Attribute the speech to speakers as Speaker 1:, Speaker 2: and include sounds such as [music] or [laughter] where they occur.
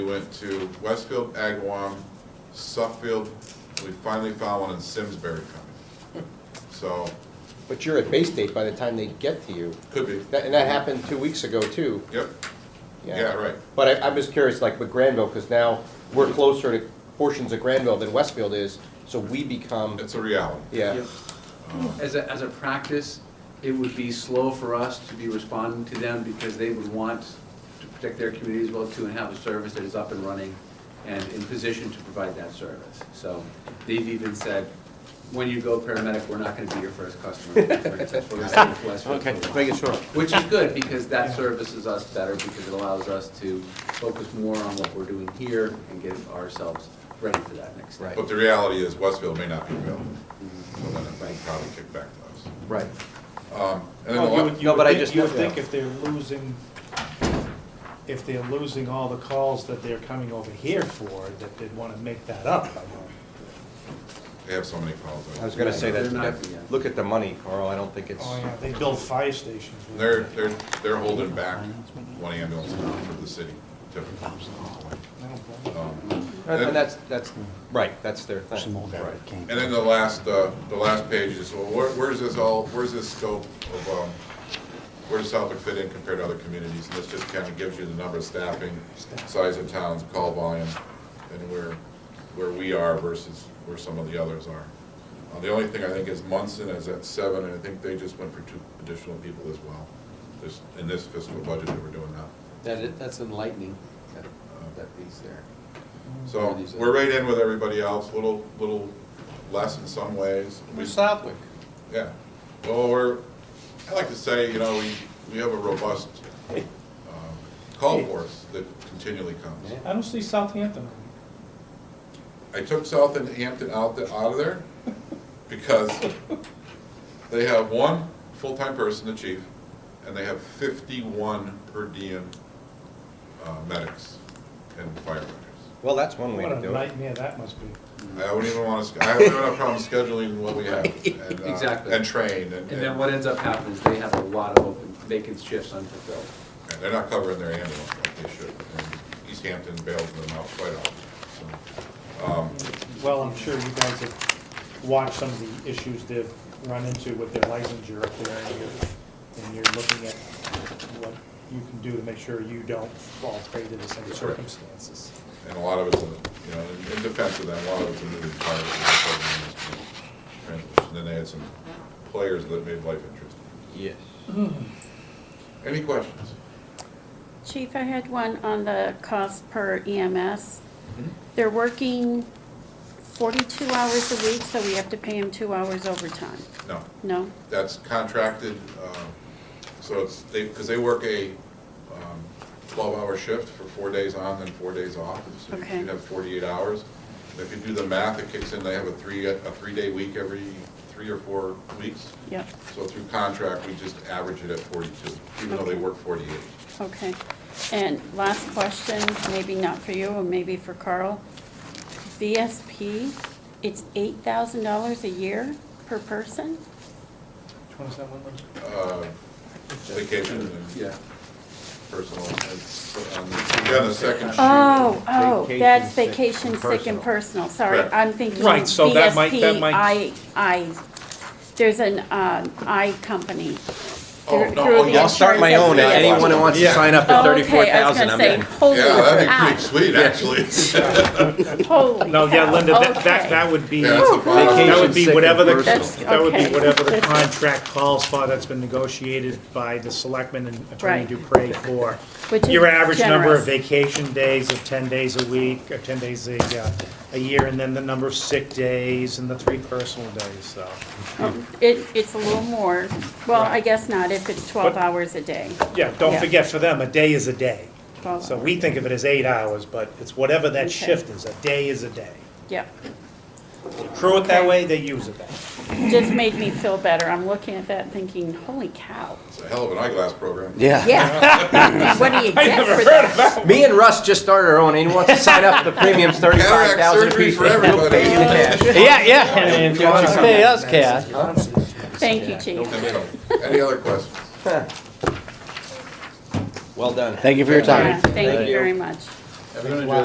Speaker 1: We went to Westfield, Agawam, Suffield, we finally found one in Simsbury County. So,
Speaker 2: But you're at base date by the time they get to you.
Speaker 1: could be,
Speaker 2: That- And that happened two weeks ago, too.
Speaker 1: yep, yeah, right,
Speaker 2: But I, I'm just curious, like with Granville, because now we're closer to portions of Granville than Westfield is, so we become,
Speaker 1: it's a reality.
Speaker 2: yeah.
Speaker 3: As a, as a practice, it would be slow for us to be responding to them because they would want to protect their communities well too and have a service that is up and running and in position to provide that service. So they've even said, when you go paramedic, we're not gonna be your first
Speaker 2: [laughs]
Speaker 3: customer. We're gonna send it to us for a while."
Speaker 2: Make it short.
Speaker 3: Which is good, because that services us better, because it allows us to focus more on what we're doing here and get ourselves ready for that next step.
Speaker 2: Right.
Speaker 1: But the reality is Westfield may not be available,
Speaker 4: Mm-hmm.
Speaker 1: so then it
Speaker 3: Right.
Speaker 1: might probably kick back to
Speaker 2: Right.
Speaker 1: us. Um, And then the
Speaker 4: Well, Oh, you
Speaker 1: la-
Speaker 4: would,
Speaker 2: No,
Speaker 4: you
Speaker 2: but
Speaker 4: would
Speaker 2: I
Speaker 4: think,
Speaker 2: just-
Speaker 4: you would
Speaker 2: yeah.
Speaker 4: think if they're losing, if they're losing all the calls that they're coming over here for, that they'd wanna make that up.
Speaker 1: they have so many calls.
Speaker 2: I was gonna say
Speaker 3: They're
Speaker 2: that,
Speaker 3: not-
Speaker 2: that- look at the money, Carl, I don't think it's,
Speaker 4: Oh, yeah, they build fire stations. with
Speaker 1: They're,
Speaker 4: it.
Speaker 1: they're, they're holding back one ambulance now for the city typically.
Speaker 4: Oh, I don't blame them.
Speaker 1: Um,
Speaker 2: and
Speaker 1: then-
Speaker 2: and that's, that's, right, that's their thing.
Speaker 1: And then the last, uh, the last page is, well, where- where's this all, where's this scope of, um, where does Southwick fit in compared to other communities? And this just kind of gives you the number of staffing, size of towns, call volume, and where, where we are versus where some of the others are. Uh, The only thing I think is Munson is at seven, and I think they just went for two additional people as well. This, in this fiscal budget, they were doing that.
Speaker 3: That, i- that's enlightening, that, that piece there.
Speaker 1: So we're right in with everybody else, little, little less in some ways. We-
Speaker 2: Southwick.
Speaker 1: Yeah, well, we're, I like to say, you know, we, we have a robust um, call force that continually comes.
Speaker 3: Yeah.
Speaker 4: I don't see Southampton.
Speaker 1: I took South and Hampton out, the- out of there because they have one full-time person, the chief, and they have fifty-one per diem uh, medics and firefighters.
Speaker 2: Well, that's one way
Speaker 4: What
Speaker 2: to
Speaker 4: a
Speaker 2: do it.
Speaker 4: nightmare that must be.
Speaker 3: Mm-hmm.
Speaker 1: I wouldn't even want to, I wouldn't have a problem scheduling what we
Speaker 3: [laughs]
Speaker 1: have and, uh,
Speaker 3: Exactly.
Speaker 1: and train and.
Speaker 3: And then what ends up happening is they have a lot of open vacant shifts unfulfilled.
Speaker 1: And They're not covering their ambulance like they should, and East Hampton bails them out quite often, so. um,
Speaker 4: Well, I'm sure you guys have watched some of the issues they've run into with their licensure up there, and you're, and you're looking at what you can do to make sure you don't fall prey to the same
Speaker 1: Correct.
Speaker 4: circumstances.
Speaker 1: And a lot of it's, in you know, in- in defense of that, a lot of it's a moving part of the program. is transition. Then they had some players that made life interesting.
Speaker 2: Yes.
Speaker 1: Any questions?
Speaker 5: Chief, I had one on the cost per EMS. They're working 42 hours a week, so we have to pay them two hours overtime.
Speaker 1: No,
Speaker 5: No?
Speaker 1: that's contracted, um, so it's, they, because they work a um, twelve-hour shift for four days on and four days off. So you-
Speaker 5: Okay.
Speaker 1: you'd have forty-eight hours. And If you do the math, it kicks in, they have a three, a three-day week every three or four weeks.
Speaker 5: Yep,
Speaker 1: So through contract, we just average it at forty-two, even though they work forty-eight.
Speaker 5: okay. And last question, maybe not for you, or maybe for Carl. VSP, it's $8,000 a year per person?
Speaker 4: Which one is that one?
Speaker 1: Uh,
Speaker 4: Lynn?
Speaker 1: Vacation and
Speaker 3: Yeah.
Speaker 1: personal, it's on the- you're on the second sheet.
Speaker 5: Oh, oh,
Speaker 2: Vacation,
Speaker 5: that's
Speaker 2: sick,
Speaker 5: vacation, sick,
Speaker 2: personal.
Speaker 5: and personal, sorry,
Speaker 1: Correct.
Speaker 5: I'm thinking
Speaker 4: Right, so that might- that
Speaker 5: VSP,
Speaker 4: might-
Speaker 5: I, I, there's an, um, I company.
Speaker 1: Oh,
Speaker 5: through-
Speaker 1: no,
Speaker 5: through
Speaker 1: oh,
Speaker 5: the
Speaker 1: yeah.
Speaker 2: I'll start my
Speaker 5: insurance
Speaker 2: own,
Speaker 5: that we have.
Speaker 2: anyone who wants to
Speaker 1: Yeah.
Speaker 2: sign up at
Speaker 5: Oh, okay,
Speaker 2: thirty-four thousand, I'm
Speaker 5: I was
Speaker 2: in.
Speaker 5: gonna say,
Speaker 1: Yeah,
Speaker 5: holy
Speaker 1: that'd be
Speaker 5: cow,
Speaker 1: pretty sweet, actually. [laughs]
Speaker 5: holy
Speaker 4: No, yeah,
Speaker 5: cow,
Speaker 4: Linda, that, that,
Speaker 5: okay.
Speaker 4: that would be,
Speaker 1: Yeah, that's a problem.
Speaker 4: that would be whatever the,
Speaker 5: That's-
Speaker 4: that would be
Speaker 5: okay.
Speaker 4: whatever the contract calls for that's been negotiated by the selectmen and Attorney
Speaker 5: Right.
Speaker 4: Dupre for
Speaker 5: Which is
Speaker 4: your average number of
Speaker 5: generous.
Speaker 4: vacation days of ten days a week, or ten days a, uh, a year, and then the number of sick days and the three personal days, so.
Speaker 5: Um, It, it's a little more, well, I
Speaker 4: Right.
Speaker 5: guess not, if it's twelve
Speaker 4: But-
Speaker 5: hours a day,
Speaker 4: Yeah, don't
Speaker 5: Yeah.
Speaker 4: forget, for them, a day is a day.
Speaker 5: Twelve
Speaker 4: So we think of it as eight hours, but it's whatever
Speaker 5: Okay.
Speaker 4: that shift is, a day is a day.
Speaker 5: yep.
Speaker 4: You Crew it that
Speaker 5: Okay.
Speaker 4: way, they use it that way.
Speaker 5: Just made me feel better, I'm looking at that thinking, holy cow.
Speaker 1: It's a hell of an eyeglass program.
Speaker 2: Yeah.
Speaker 5: Yeah.
Speaker 4: [laughs]
Speaker 5: What do you get for that?
Speaker 2: Me and Russ just started our own, anyone wants to sign up, the premium's thirty-five
Speaker 1: Cataract
Speaker 2: thousand.
Speaker 1: surgery for everybody.
Speaker 6: Yeah, yeah, and if you want to pay us cash.
Speaker 5: Thank you, chief.
Speaker 1: Any other questions?
Speaker 2: Well done.
Speaker 6: Thank you for your
Speaker 5: Yeah,
Speaker 6: time.
Speaker 5: Thank you very much.
Speaker 3: Everyone enjoy